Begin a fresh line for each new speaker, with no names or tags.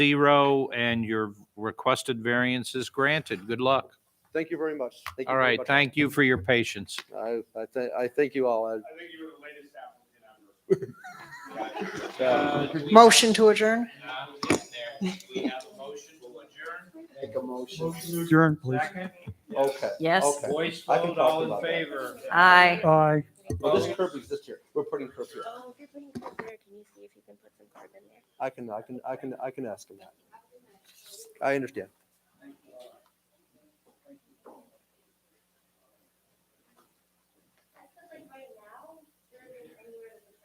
zero, and your requested variance is granted. Good luck.
Thank you very much. Thank you
All
very
right,
much.
thank you for your patience.
I, I thank, I thank you all.
I
I-
think you were the latest applicant on this.
Uh,
Motion to adjourn?
We have a motion to adjourn.
Make a motion.
Adjourn, please.
Second,
Okay.
Yes.
Okay.
voice
I can
vote,
talk
all in
about that.
favor.
Aye.
Aye.
Well, this curb is this year. We're putting curb here.
Oh, if you're putting curb there, can you see if you can put some curb in there?
I can, I can, I can, I can ask him that. I understand.